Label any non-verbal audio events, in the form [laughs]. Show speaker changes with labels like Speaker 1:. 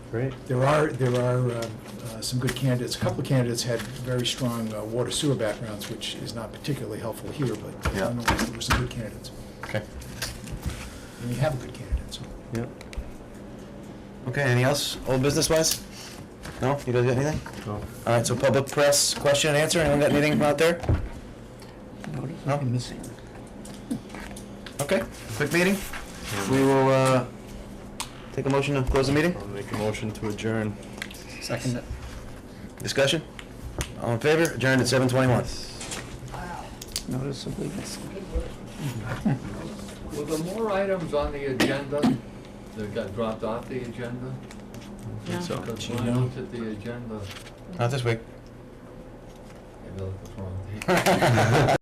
Speaker 1: Great.
Speaker 2: There are, there are uh, uh, some good candidates. A couple of candidates had very strong uh, water sewer backgrounds, which is not particularly helpful here, but
Speaker 3: Yeah.
Speaker 2: nonetheless, there were some good candidates.
Speaker 3: Okay.
Speaker 2: And we have a good candidate, so.
Speaker 1: Yep.
Speaker 3: Okay, anything else, old business wise? No, you guys got anything?
Speaker 1: Well,
Speaker 3: All right, so public press, question and answer, anyone got anything out there? No? missing. Okay, quick meeting, we will, uh, take a motion to close the meeting,
Speaker 1: I'll make a motion to adjourn.
Speaker 2: Second.
Speaker 3: discussion? All in favor, adjourned at seven twenty-one.
Speaker 4: noticeably missing.
Speaker 5: Were there more items on the agenda that got dropped off the agenda?
Speaker 1: So,
Speaker 5: Because when I looked at the agenda,
Speaker 3: Not this week. [laughs]
Speaker 5: maybe I looked at the wrong.